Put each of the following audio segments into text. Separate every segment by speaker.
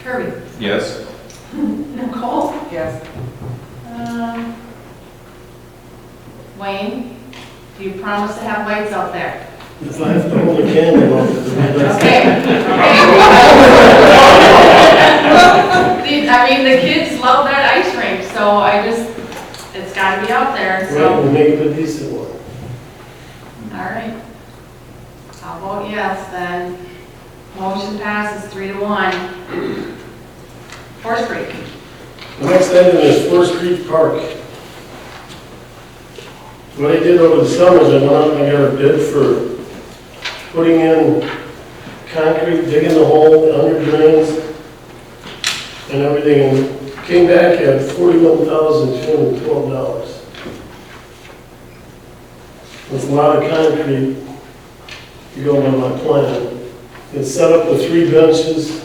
Speaker 1: Kirby?
Speaker 2: Yes.
Speaker 1: Nicole?
Speaker 3: Yes.
Speaker 1: Um, Wayne, do you promise to have lights out there?
Speaker 4: If I have to hold a candle up to the midnight.
Speaker 1: Okay, okay. I mean, the kids love that ice rink, so I just, it's gotta be out there,
Speaker 4: Right,
Speaker 1: so,
Speaker 4: we'll make it a decent one.
Speaker 1: all right. I'll vote yes, then. Motion passes three to one. Horse Creek.
Speaker 4: The next item is Forest Creek Park. What I did over the summer is I went out and I got a bid for putting in concrete, digging the hole, under drains, and everything, and came back at forty-one thousand two hundred and twelve dollars. With a lot of concrete, if you go by my plan. It's set up with three benches,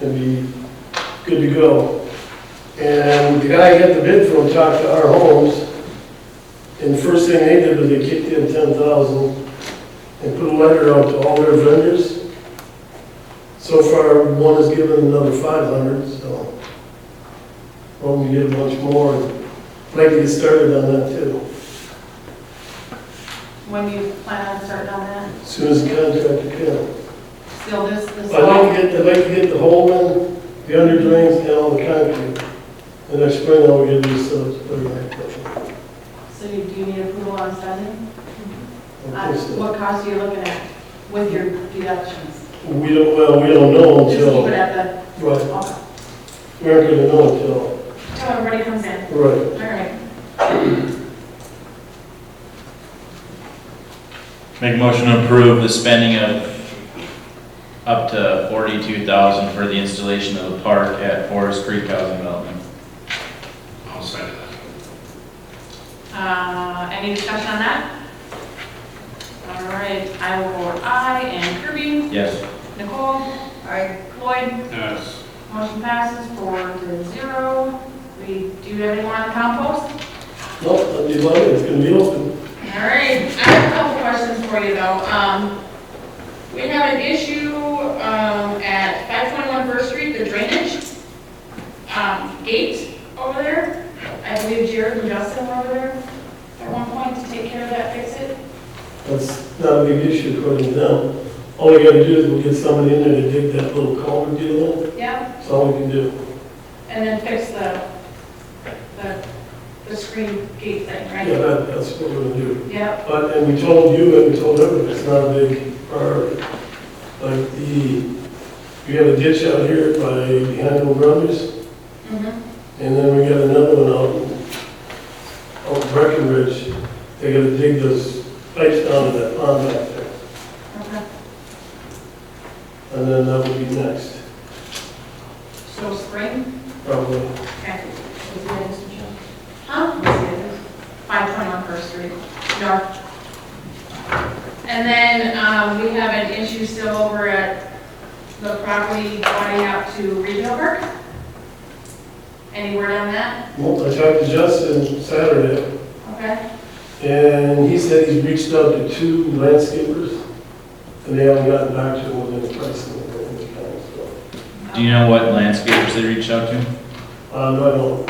Speaker 4: and be good to go. And the guy got the bid from Talk to Our Homes, and first thing they did was they kicked in ten thousand and put a letter out to all their vendors. So far, one has given another five hundred, so hoping to get a bunch more, and I'd like to get started on that too,
Speaker 1: When do you plan on starting on that?
Speaker 4: as soon as the contract comes.
Speaker 1: Seal this, this
Speaker 4: I'd like
Speaker 1: fall?
Speaker 4: to get, I'd like to get the hole in, the under drains, and all the concrete. And next spring, I'll get these, so it's pretty much.
Speaker 1: So you- do you need approval on spending?
Speaker 4: I
Speaker 1: Uh,
Speaker 4: think so.
Speaker 1: What cost are you looking at with your deductions?
Speaker 4: We don't, well, we don't know
Speaker 1: Just keep it
Speaker 4: until,
Speaker 1: at the,
Speaker 4: right,
Speaker 1: okay.
Speaker 4: we aren't gonna know until,
Speaker 1: Till everybody comes in.
Speaker 4: right.
Speaker 1: All right.
Speaker 2: Make a motion to approve the spending of up to forty-two thousand for the installation of the park at Forest Creek Housing Development.
Speaker 5: I'll second that.
Speaker 1: Uh, any discussion on that? All right, I will vote aye, and Kirby,
Speaker 2: Yes.
Speaker 1: Nicole,
Speaker 3: I,
Speaker 1: Floyd,
Speaker 5: Yes.
Speaker 1: motion passes four to zero. We, do you have any more on the compost?
Speaker 4: No, that'd be lovely, it's gonna be open.
Speaker 1: All right, I have a couple questions for you though. Um, we have an issue, um, at 521 First Street, the drainage, um, gate over there. I believe Jared and Justin were over there at one point to take care of that, fix it.
Speaker 4: That's not a big issue according to them. All we gotta do is we'll get somebody in there to dig that little culvert deal in,
Speaker 1: Yeah,
Speaker 4: that's all we can do.
Speaker 1: and then fix the, the, the screen gate thing,
Speaker 4: Yeah,
Speaker 1: right?
Speaker 4: that, that's what we're gonna do.
Speaker 1: Yep,
Speaker 4: But, and we told you and we told everyone, it's not a big priority. Like the, we have a ditch out here by behind Old Brothers,
Speaker 1: mhm,
Speaker 4: And then we got another one out, out in Breckenridge, they gotta dig those pipes down to that pond back there,
Speaker 1: okay.
Speaker 4: and then that would be next,
Speaker 1: So spring,
Speaker 4: probably.
Speaker 1: okay. Huh? Five point one First Street, north. And then, um, we have an issue still over at the property going out to Regional Park. Any word on that?
Speaker 4: Well, I talked to Justin Saturday,
Speaker 1: Okay,
Speaker 4: and he said he's reached out to two landscapers, and they haven't gotten back to him with any pricing or anything, so.
Speaker 2: Do you know what landscapers they reached out to?
Speaker 4: Um, I don't,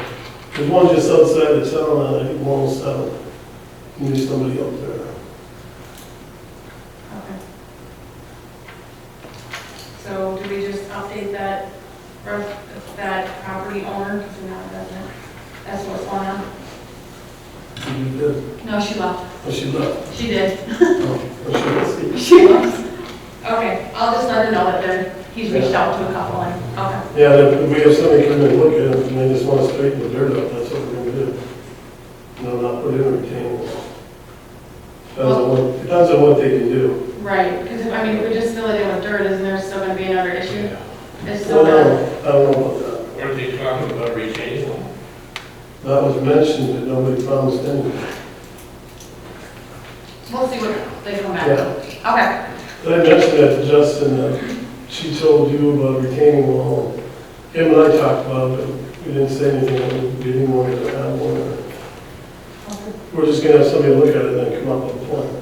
Speaker 4: there's one just outside of town, on, I think one oh seven, and there's somebody up there.
Speaker 1: okay. So do we just update that, or that property owner, because we're not resident? That's what's going on?
Speaker 4: She did,
Speaker 1: No, she left.
Speaker 4: but she left,
Speaker 1: She did.
Speaker 4: Oh, but she was here.
Speaker 1: She loves. Okay, I'll just let her know that there, he's reached out to a couple and, okay.
Speaker 4: Yeah, if we have somebody come and look at it, and they just want to straighten the dirt up, that's what we're gonna do. No, not put in a retaining wall. Depends on what, depends on what they can do.
Speaker 1: Right, because if, I mean, if we just fill it in with dirt, isn't there still gonna be another issue? It's
Speaker 4: I
Speaker 1: still
Speaker 4: don't
Speaker 1: gonna,
Speaker 4: know, I don't know about
Speaker 5: Were they talking about retaining wall?
Speaker 4: that. That was mentioned, but nobody promised anything.
Speaker 1: we'll see what they come back
Speaker 4: Yeah.
Speaker 1: with. Okay,
Speaker 4: But I mentioned that to Justin, that she told you about retaining wall. Him and I talked about it, but we didn't say anything, we didn't want to have one. We're just gonna have somebody look at it and then come up with a plan.